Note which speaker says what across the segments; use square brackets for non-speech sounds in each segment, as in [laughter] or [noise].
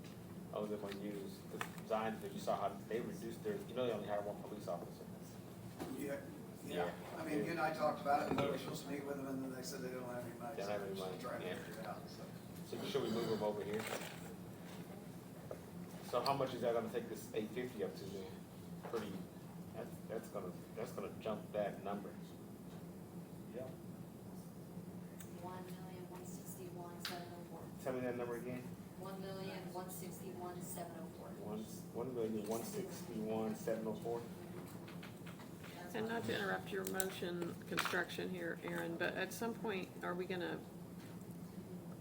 Speaker 1: was gonna Oh, use the design, because you saw how they reduced their, you know, they only hired one police officer.
Speaker 2: Yeah, yeah,
Speaker 1: Yeah.
Speaker 2: I mean, you and I talked about it, and we were supposed to meet with them, and then they said they don't have any money, so
Speaker 1: Don't have any
Speaker 2: we're
Speaker 1: money,
Speaker 2: just trying to
Speaker 1: yeah.
Speaker 2: figure it out, so.
Speaker 1: So should we move them over here? So how much is that gonna take this eight fifty up to then? Pretty, that's, that's gonna, that's gonna jump that number. Yeah.
Speaker 3: One million, one sixty-one, seven oh four.
Speaker 1: Tell me that number again.
Speaker 3: One million, one sixty-one, seven oh four.
Speaker 1: One, one million, one sixty-one, seven oh four.
Speaker 4: And not to interrupt your motion construction here, Aaron, but at some point, are we gonna,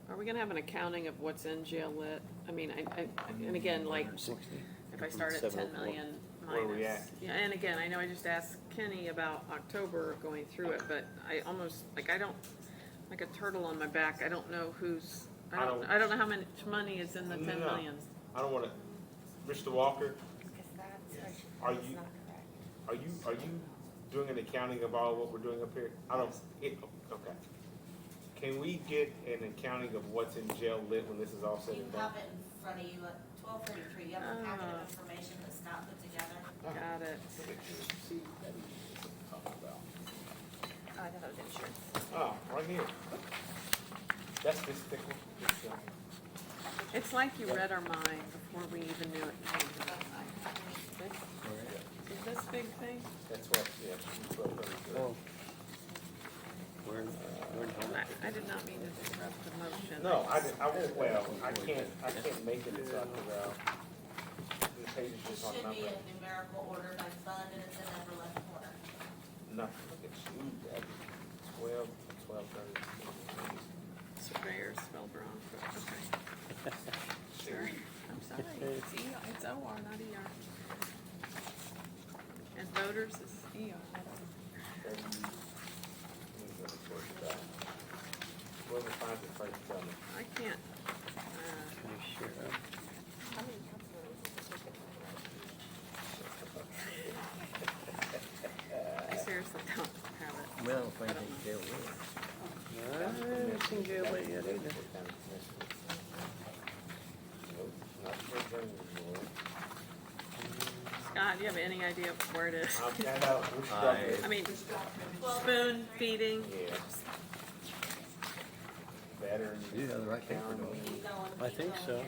Speaker 4: are we gonna have an accounting of what's in jail lit? I mean, I, I, and again, like, if I start at ten million
Speaker 1: Where
Speaker 4: minus.
Speaker 1: we
Speaker 4: Yeah, and again, I know I just asked Kenny about October going through it, but I almost, like, I don't, like a turtle on my back, I don't know who's, I
Speaker 1: I
Speaker 4: don't,
Speaker 1: don't-
Speaker 4: I don't know how much money is in the ten
Speaker 1: No.
Speaker 4: million.
Speaker 1: I don't wanna, Mr. Walker, Are you- Are you, are you doing an accounting of all what we're doing up here? I don't, it, okay. Can we get an accounting of what's in jail lit when this is all said
Speaker 5: You
Speaker 1: and done?
Speaker 5: have it in front of you at twelve thirty-three, you have a packet
Speaker 4: Oh.
Speaker 5: of information that Scott put together.
Speaker 4: Got it.
Speaker 6: Oh, I thought it was insurance.
Speaker 1: Oh, right here. That's this thick one. This, uh,
Speaker 4: It's like you read our mind before we even knew it. Is this big thing?
Speaker 1: That's what, yeah. it's what we're
Speaker 5: Oh.
Speaker 1: doing.
Speaker 7: We're in, we're in
Speaker 4: I, I did not mean to disrupt the motion.
Speaker 1: No, I, didn't- I won't, well, I can't, I can't make it this up without, the page is just on
Speaker 5: Should
Speaker 1: number.
Speaker 5: be in numerical order by fund and it's in the upper left corner.
Speaker 1: Nothing, look at you, that twelve, twelve thirty.
Speaker 4: Surveyor spelled wrong, but okay. Sure, I'm sorry. It's E, it's O R, not E R. And voters is E R.
Speaker 1: Let me go to work back. Whoever finds it first, tell me.
Speaker 4: I can't, uh,
Speaker 6: How many councilors is this taking?
Speaker 4: I seriously don't have it.
Speaker 7: Well, if I think jail lit. I think jail lit yet either.
Speaker 1: Nope, not for them, Lord.
Speaker 4: Scott, do you have any idea where it is?
Speaker 1: I'll find out which stuff it
Speaker 4: I
Speaker 1: is.
Speaker 4: mean,
Speaker 5: Twelve
Speaker 4: spoon
Speaker 5: thirty-three.
Speaker 4: feeding.
Speaker 1: Yeah. Veterans.
Speaker 7: You have the right paper,
Speaker 1: county,
Speaker 7: don't
Speaker 5: Keep going,
Speaker 7: I
Speaker 5: keep
Speaker 7: think
Speaker 5: going
Speaker 7: so.
Speaker 5: here.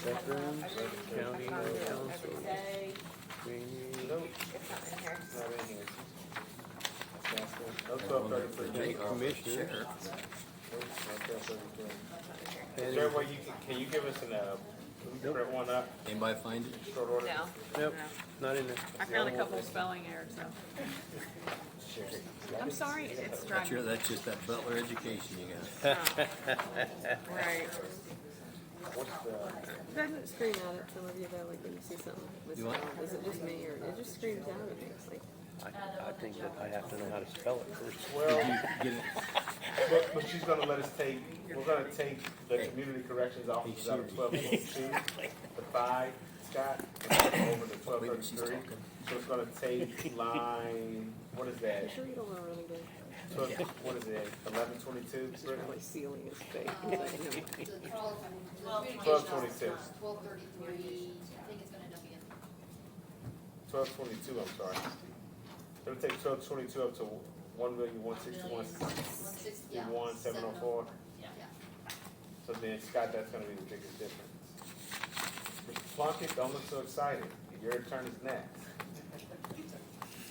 Speaker 7: Veterans,
Speaker 1: Veterans.
Speaker 7: county, council,
Speaker 5: Day,
Speaker 7: training.
Speaker 1: Nope,
Speaker 6: It's not in here.
Speaker 1: it's not in here. That's it. No twelve thirty-three.
Speaker 7: State
Speaker 1: Nope,
Speaker 7: commissioner.
Speaker 1: no twelve thirty-three.
Speaker 6: It's not in here.
Speaker 1: Is there a way you can, can you give us an, uh, can we print one up,
Speaker 7: Anybody find it?
Speaker 1: short order?
Speaker 4: No,
Speaker 7: Nope, not in there.
Speaker 4: I found a couple spelling errors, so.
Speaker 1: Sure.
Speaker 4: I'm sorry, it's
Speaker 7: That's your,
Speaker 4: driving.
Speaker 7: that's just that Butler education you got.
Speaker 4: [laughs] Right.
Speaker 1: What's the,
Speaker 8: Doesn't it scream out at some of you though, like when you see something
Speaker 7: You what?
Speaker 8: misspelled? Is it just me or it just screams out at me? It's like,
Speaker 7: I, I think that I have to know how to spell it first.
Speaker 1: well,
Speaker 7: Get it,
Speaker 1: but, but she's gonna let us take, we're gonna take the community corrections officers out of twelve forty-two, the five, Scott, and put them over to twelve
Speaker 7: Wait, she's
Speaker 1: thirty-three.
Speaker 7: talking.
Speaker 1: So it's gonna take line, what is that,
Speaker 8: I'm sure you don't want to run again.
Speaker 1: Twelve- what is it, eleven twenty-two?
Speaker 8: It's probably sealing his face.
Speaker 5: Twelve
Speaker 1: Twelve
Speaker 5: twenty.
Speaker 1: twenty-two,
Speaker 3: Twelve thirty-three, I think it's gonna end up being.
Speaker 1: twelve twenty-two, I'm sorry. It'll take twelve twenty-two up to one million, one sixty-one,
Speaker 3: One sixty, yeah.
Speaker 1: one, seven oh four.
Speaker 5: Yeah.
Speaker 1: So then, Scott, that's gonna be the biggest difference. Mr. Plunkett, don't look so excited. Your turn is next.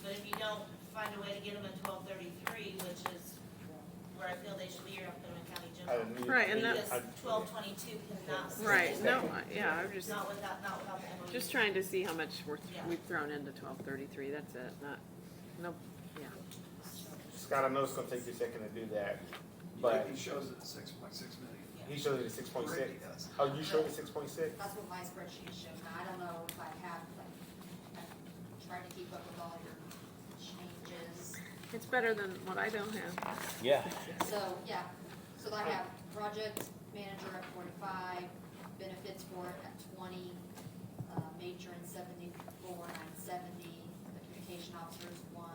Speaker 5: But if you don't find a way to get them at twelve thirty-three, which is where I feel they should be, you're up in County
Speaker 1: I
Speaker 5: General.
Speaker 1: didn't mean-
Speaker 4: Right, and that-
Speaker 5: Because twelve twenty-two cannot. stay.
Speaker 4: Right, no, I- yeah, I'm just,
Speaker 5: Not without, not without the MOU.
Speaker 4: just trying to see how much we're, we've thrown into twelve thirty-three, that's it, not, no, yeah.
Speaker 1: Scott, I know it's gonna take you a second to do that, but
Speaker 2: But he shows it at six point six million.
Speaker 1: he showed it at six point six.
Speaker 2: Brittany does.
Speaker 1: Oh, you showed it six point six?
Speaker 3: That's what my spreadsheet showed, now I don't know if I have, like, I'm trying to keep up with all your changes.
Speaker 4: It's better than what I don't have.
Speaker 7: yeah.
Speaker 3: So, yeah, so I have project manager at forty-five, benefits for it at twenty, uh, major in seventy-four, nine seventy, the communication officers, one,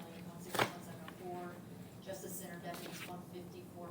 Speaker 3: million, one sixty-one, seven oh four, justice center deputies, one